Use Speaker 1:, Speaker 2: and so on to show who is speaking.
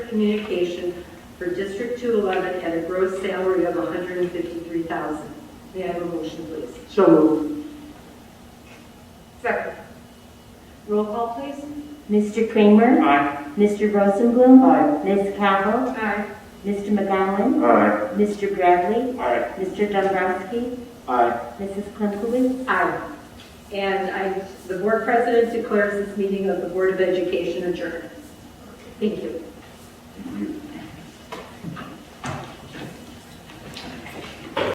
Speaker 1: communication for District 211 at a gross salary of $153,000. May I have a motion, please?
Speaker 2: So moved.
Speaker 1: Second. Roll call, please.
Speaker 3: Mr. Kramer?
Speaker 2: Aye.
Speaker 3: Mr. Rosenblum?
Speaker 2: Aye.
Speaker 3: Ms. Cavill?
Speaker 1: Aye.
Speaker 3: Mr. McGowan?
Speaker 2: Aye.
Speaker 3: Mr. Bradley?
Speaker 2: Aye.
Speaker 3: Mr. Dombrowski?
Speaker 2: Aye.
Speaker 3: Mrs. Klinkouli?
Speaker 1: Aye. And I, the board president declares this meeting of the Board of Education adjourned. Thank you.
Speaker 2: You-